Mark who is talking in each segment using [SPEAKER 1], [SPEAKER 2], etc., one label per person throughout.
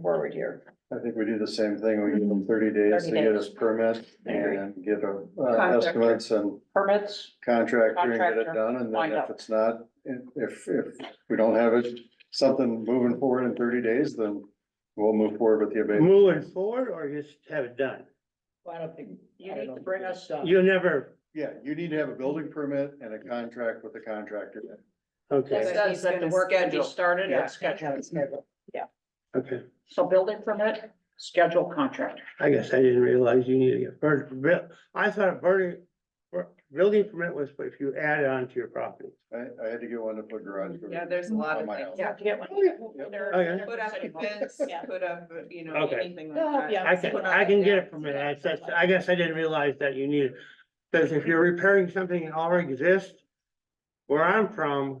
[SPEAKER 1] forward here.
[SPEAKER 2] I think we do the same thing. We give them thirty days
[SPEAKER 1] 30
[SPEAKER 2] to get
[SPEAKER 1] days.
[SPEAKER 2] us permit
[SPEAKER 1] I agree.
[SPEAKER 2] and get a, uh,
[SPEAKER 1] Contractor.
[SPEAKER 2] estimates and
[SPEAKER 1] Permits,
[SPEAKER 2] contractor and get
[SPEAKER 1] Contractor,
[SPEAKER 2] it done. And then
[SPEAKER 1] wind up.
[SPEAKER 2] if it's not, if, if we don't have it, something moving forward in thirty days, then we'll move forward with the abatement.
[SPEAKER 3] Moving forward or just have it done?
[SPEAKER 4] Well, I don't think.
[SPEAKER 1] You
[SPEAKER 4] I
[SPEAKER 1] need to
[SPEAKER 4] don't
[SPEAKER 1] bring
[SPEAKER 4] think
[SPEAKER 1] us-
[SPEAKER 4] it's done.
[SPEAKER 3] You never,
[SPEAKER 2] Yeah, you need to have a building permit and a contract with the contractor.
[SPEAKER 3] okay,
[SPEAKER 1] that means that the work can be started
[SPEAKER 4] Yeah,
[SPEAKER 1] and
[SPEAKER 4] it's gotta
[SPEAKER 1] scheduled.
[SPEAKER 4] have it scheduled.
[SPEAKER 3] okay.
[SPEAKER 1] So building permit, schedule contractor.
[SPEAKER 3] I guess I didn't realize you needed to get first, buil- I thought a burning, bur- building permit was if you add on to your property.
[SPEAKER 2] I, I had to get one to put garage. Oh, door
[SPEAKER 1] Mm-hmm.
[SPEAKER 5] Yeah, there's a lot
[SPEAKER 2] on
[SPEAKER 5] of
[SPEAKER 2] my
[SPEAKER 5] things.
[SPEAKER 2] house.
[SPEAKER 1] Yeah, to get one.
[SPEAKER 2] Yep.
[SPEAKER 1] They're-
[SPEAKER 4] Oh,
[SPEAKER 3] Okay.
[SPEAKER 1] they're
[SPEAKER 5] Put up a
[SPEAKER 1] considerable.
[SPEAKER 5] fence,
[SPEAKER 1] Yeah.
[SPEAKER 5] put up, you know,
[SPEAKER 3] Okay.
[SPEAKER 5] anything
[SPEAKER 1] They'll help
[SPEAKER 5] like
[SPEAKER 1] you out.
[SPEAKER 5] that.
[SPEAKER 3] I can, I can get it from it, I said, I guess I didn't realize that you needed, because if you're repairing something that already exists, where I'm from,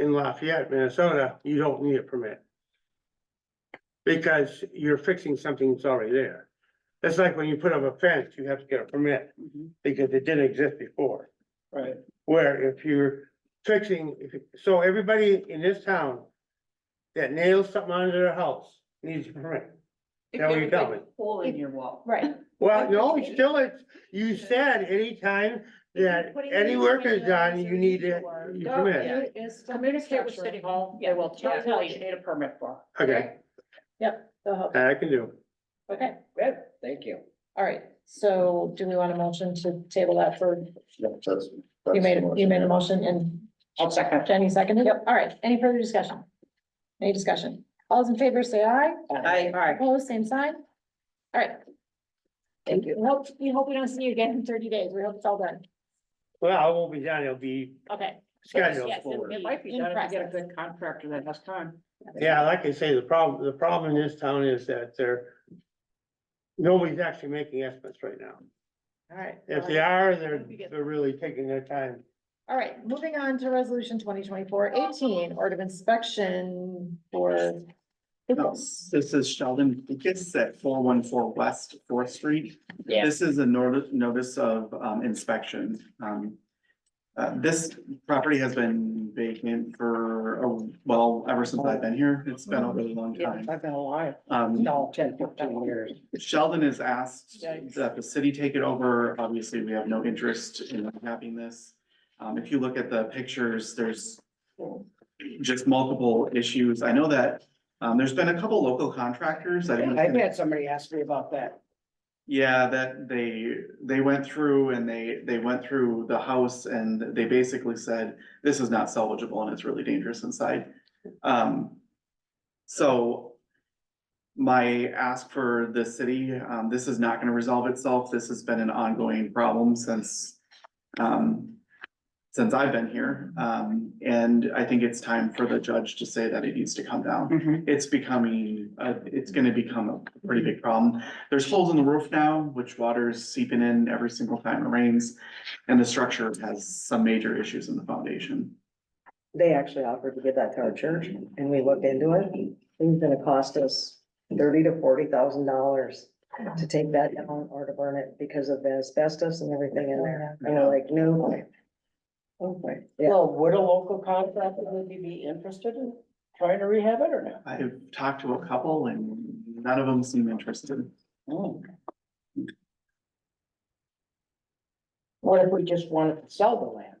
[SPEAKER 3] in Lafayette, Minnesota, you don't need a permit. Because you're fixing something that's already there. It's like when you put up a fence, you have to get a permit, because it didn't exist before.
[SPEAKER 4] Right.
[SPEAKER 3] Where if you're fixing, if, you- so everybody in this town that nails something onto their house needs a permit.
[SPEAKER 5] If
[SPEAKER 3] Now
[SPEAKER 5] you
[SPEAKER 3] you
[SPEAKER 5] have a
[SPEAKER 3] tell
[SPEAKER 5] big
[SPEAKER 3] me.
[SPEAKER 5] Hole in your wall.
[SPEAKER 1] Right.
[SPEAKER 3] Well, no, it's still, it's, you said anytime that
[SPEAKER 1] Putting
[SPEAKER 3] any
[SPEAKER 1] these
[SPEAKER 3] work is
[SPEAKER 1] windows
[SPEAKER 3] done,
[SPEAKER 1] or
[SPEAKER 3] you need
[SPEAKER 1] these
[SPEAKER 3] it,
[SPEAKER 1] doors.
[SPEAKER 3] you
[SPEAKER 1] No,
[SPEAKER 3] permit.
[SPEAKER 1] you- Communicate with City Hall, they will tell you what you need a permit for.
[SPEAKER 3] Okay, that I can do.
[SPEAKER 6] Okay,
[SPEAKER 4] Good, thank you.
[SPEAKER 6] all right, so do we want a motion to table that for,
[SPEAKER 2] Yep, that's-
[SPEAKER 6] you
[SPEAKER 2] that's
[SPEAKER 6] made,
[SPEAKER 2] the motion.
[SPEAKER 6] you made a motion and
[SPEAKER 1] I'll second.
[SPEAKER 6] Jenny seconded? Yep. All right, any further discussion? Any discussion? All those in favor say aye,
[SPEAKER 5] I,
[SPEAKER 1] All right,
[SPEAKER 6] opposed, same sign? All right.
[SPEAKER 1] Thank you.
[SPEAKER 6] We hope, we hope we don't see you again in thirty days, we hope it's all done,
[SPEAKER 3] Well, I won't be done, it'll be
[SPEAKER 6] okay.
[SPEAKER 3] scheduled
[SPEAKER 6] Yes, it'll
[SPEAKER 3] forward.
[SPEAKER 1] it might be
[SPEAKER 6] in
[SPEAKER 1] done if you get a
[SPEAKER 6] process.
[SPEAKER 1] good contractor that has time.
[SPEAKER 3] Yeah, like I say, the problem, the problem in this town is that there, nobody's actually making estimates right now.
[SPEAKER 6] All right.
[SPEAKER 3] If they are, they're, they're really taking their time.
[SPEAKER 6] All right, moving on to resolution 2024-18, order of inspection for vehicles.
[SPEAKER 7] This is Sheldon Lucas at four one four West Fourth Street.
[SPEAKER 1] Yeah.
[SPEAKER 7] This is a notice, notice of um, inspection. Um, uh, this property has been vacant for, oh, well, ever since I've been here. It's been a really long time.
[SPEAKER 4] I've been alive,
[SPEAKER 1] Mm-hmm.
[SPEAKER 7] Um,
[SPEAKER 4] no, ten, fifteen years.
[SPEAKER 7] Sheldon has asked
[SPEAKER 4] Yikes.
[SPEAKER 7] that the city take it over. Obviously, we have no interest in having this. Um, if you look at the pictures, there's just multiple issues. I know that, um, there's been a couple local contractors. that have-
[SPEAKER 4] I've had somebody ask me about that.
[SPEAKER 7] yeah, that they, they went through and they, they went through the house and they basically said, this is not salvageable and it's really dangerous inside. Um, so my ask for the city, um, this is not gonna resolve itself. This has been an ongoing problem since, um, since I've been here. Um, and I think it's time for the judge to say that it needs to come down
[SPEAKER 1] Mm-hmm.
[SPEAKER 7] it's becoming, uh, it's gonna become a pretty big problem. There's holes in the roof now, which water is seeping in every single time it rains. And the structure has some major issues in the foundation.
[SPEAKER 4] They actually offered to give that to our church and we looked into it. It was gonna cost us thirty to forty thousand dollars to take that down or to burn it because of the asbestos and everything in there, you know, like new.
[SPEAKER 1] Okay.
[SPEAKER 4] Yeah.
[SPEAKER 1] Well, would a local contractor maybe be interested in trying to rehab it or not?
[SPEAKER 7] I've talked to a couple and none of them seem interested.
[SPEAKER 1] Hmm. What if we just wanted to sell the land?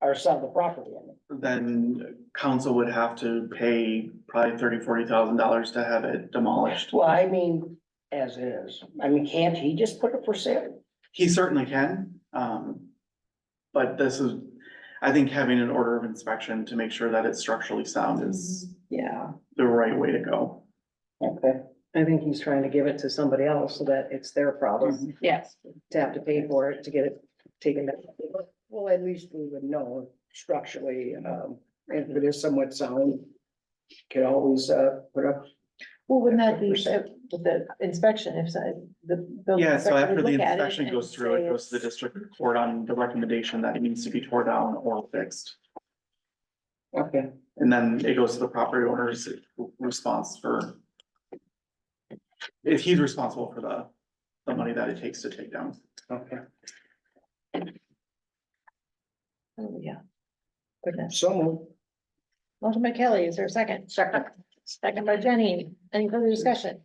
[SPEAKER 1] Or sell the property, I mean?
[SPEAKER 7] Then council would have to pay probably thirty, forty thousand dollars to have it demolished.
[SPEAKER 1] Well, I mean, as is, I mean, can't he just put it for sale?
[SPEAKER 7] He certainly can, um, but this is, I think having an order of inspection to make sure that it's structurally sound is
[SPEAKER 6] Mm-hmm,
[SPEAKER 5] yeah.
[SPEAKER 7] the right way to go.
[SPEAKER 1] Okay.
[SPEAKER 4] I think he's trying to give it to somebody else so that it's their problem
[SPEAKER 1] Mm-hmm.
[SPEAKER 6] Yes.
[SPEAKER 4] to have to pay for it to get it taken down. Well, at least we would know structurally, um, if it is somewhat sound, can always, uh, put up.
[SPEAKER 6] Well, wouldn't that be uh, with the inspection if so- the. building
[SPEAKER 7] Yeah, so
[SPEAKER 6] inspector
[SPEAKER 7] after
[SPEAKER 6] would
[SPEAKER 7] the
[SPEAKER 6] look at it
[SPEAKER 7] inspection
[SPEAKER 6] and
[SPEAKER 7] goes through,
[SPEAKER 6] say
[SPEAKER 7] it goes to the
[SPEAKER 6] it's-
[SPEAKER 7] district court on the recommendation that it needs to be tore down or fixed.
[SPEAKER 4] Okay.
[SPEAKER 7] And then it goes to the property owner's response for. If he's responsible for the, the money that it takes to take down.
[SPEAKER 4] Okay.
[SPEAKER 6] Oh, Yeah. Goodness.
[SPEAKER 4] So moved.
[SPEAKER 6] "Oh, Motion by Kelly, is there a second?
[SPEAKER 1] Second.
[SPEAKER 6] Second by Jenny. Any further discussion?